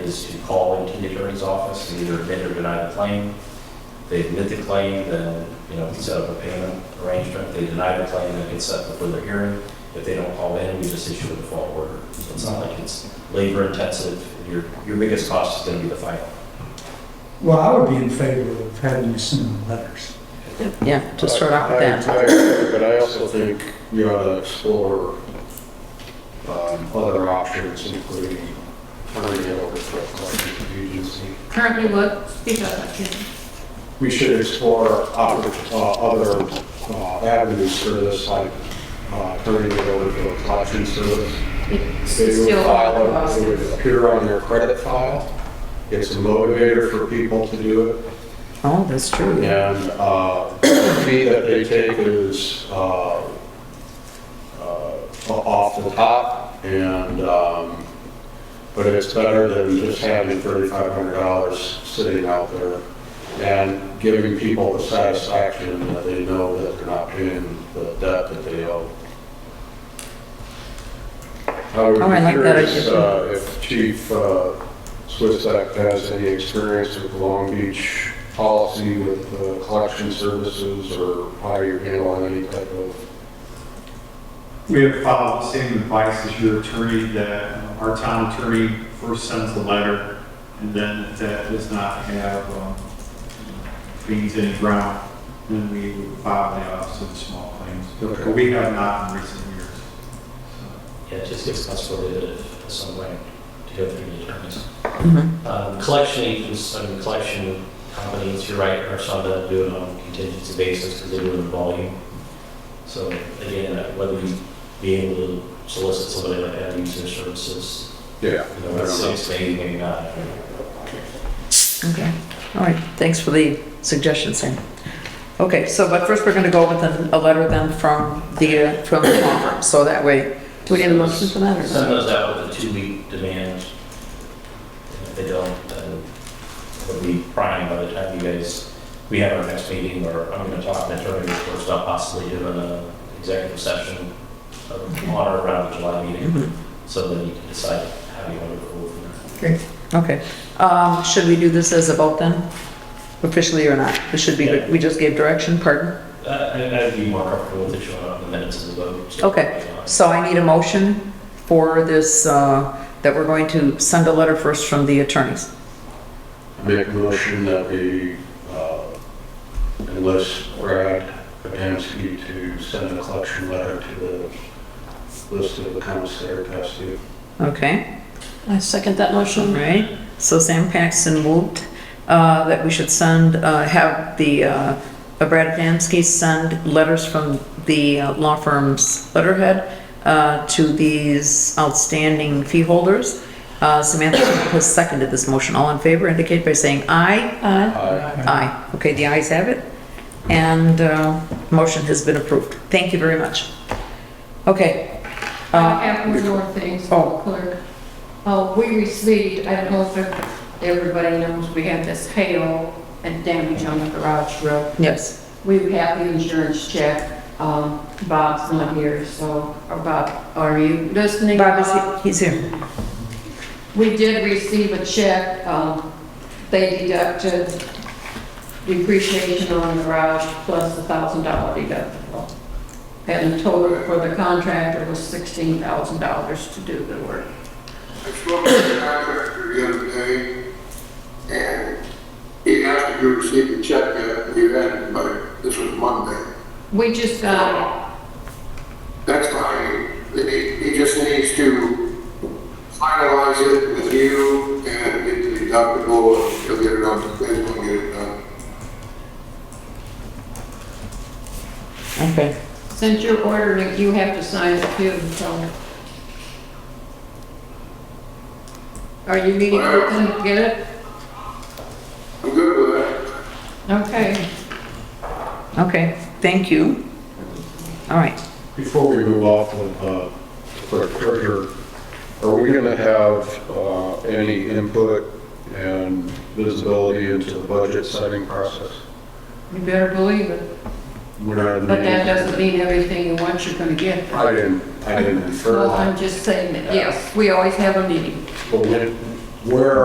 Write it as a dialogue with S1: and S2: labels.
S1: is to call into the attorney's office and either admit or deny the claim. They admit the claim, then, you know, we set up a payment arrangement. If They deny the claim, then it's set for further hearing. If they don't call in, we just issue a default order. So it's not like it's labor intensive. Your, your biggest cost is gonna be the file.
S2: Well, I would be in favor of having you send them letters.
S3: Yeah, to start off with that.
S4: I- I agree, But I also think you ought to explore um, other options, including turning it over to a collective agency.
S5: Currently what, speak up, I can't.
S4: We should explore oppor- uh, other uh, avenues for this, like uh, turning it over to a collection service.
S5: It's
S4: They would
S5: still
S4: file it, it
S5: possible.
S4: would appear on their credit file. It's a motivator for people to do it.
S3: Oh, that's true.
S4: And uh, the fee that they take is uh, uh, off the top, and, um, but it's better than just having $3,500 sitting out there and giving people the satisfaction that they know that they're not paying the debt that they owe. I would
S3: Oh, I
S4: be
S3: like that
S4: curious
S3: idea.
S4: uh, if Chief uh, Swisak has any experience with Long Beach policy with uh, collection services or how you're handling any type of,
S6: We have followed the same advice as your attorney, that uh, our town attorney first sends the letter, and then if that does not have um, things in the ground, then we would file the office of small claims.
S4: Okay.
S6: But we have not in recent years. So,
S1: Yeah, it just gives us a of some way to go through the attorneys.
S3: Mhm.
S1: Um, Collection agents, I mean, collection companies, you're right, are some that do it on a contingency basis because they do it in volume. So again, uh, whether you be able to solicit somebody like that, use their services,
S4: yeah.
S1: you know, that's six, maybe, maybe not.
S3: Okay, all right, thanks for the suggestion, Sam. Okay, so, but first we're gonna go with a, a letter then from the, uh, from the law firm, so that way. Do we need a motion for that or
S1: Send
S3: not?
S1: those out with a two-week demand. And If they don't, then it'll be prime by the time you guys, we have our next meeting, or I'm gonna talk to the attorney first, I'll possibly do an executive session of- on or around the July meeting,
S3: Mm-hmm.
S1: so then you can decide how you want to go from there.
S3: Okay, um, should we do this as a vote then? Officially or not? We should be, good. we just gave direction, pardon?
S1: Uh, I- I'd be more comfortable with it showing up in the minutes of the vote. so-
S3: Okay. So I need a motion for this, uh, that we're going to send a letter first from the attorneys.
S4: Make a motion that we uh, enlist Brad Adamski to send a collection letter to the list of accounts that are past due.
S3: Okay,
S7: I second that
S3: all
S7: motion.
S3: right. So Sam Paxton moved, uh, that we should send, uh, have the, uh, Brad Adamski send letters from the uh, law firm's letterhead, uh, to these outstanding fee holders. Uh, Samantha has seconded this motion. All in favor indicate by saying aye.
S7: Aye.
S4: Aye.
S3: Aye. Okay, the ayes have it. And uh, motion has been approved. Thank you very much. Okay.
S5: I
S3: Uh,
S5: have one more thing,
S3: Oh.
S5: so clerk. Oh, we received, I don't know if everybody knows, we had this hail and damage on the garage roof.
S3: Yes.
S5: We have the insurance check, um, Bob's not here, so, or Bob, are you listening?
S3: Bob, is he- he's here.
S5: We did receive a check, um, they deducted depreciation on the garage plus the thousand dollar deductible. And the total for the contractor was sixteen thousand dollars to do the work.
S8: I spoke to the contractor the other day, and he asked if you received a check yet, and you hadn't, but this was Monday.
S5: We just got,
S8: That's fine, he, he just needs to finalize it with you and get the deductible, and he'll get it done, they will get it done.
S3: Okay.
S5: since you're ordering, you have to sign it too, so. Are you meeting with them to get it?
S8: I'm good with that.
S5: Okay.
S3: Okay. Thank you. All right.
S4: Before we move off of uh, clerk treasurer, are we going to have uh, any input and visibility into the budget setting process?
S5: You better believe it.
S4: We're not in the
S5: But that
S4: meeting.
S5: doesn't mean everything you want you're gonna get.
S4: I didn't, I didn't infer
S5: Well,
S4: that.
S5: I'm just saying that, yes, we always have a meeting.
S4: But when- Where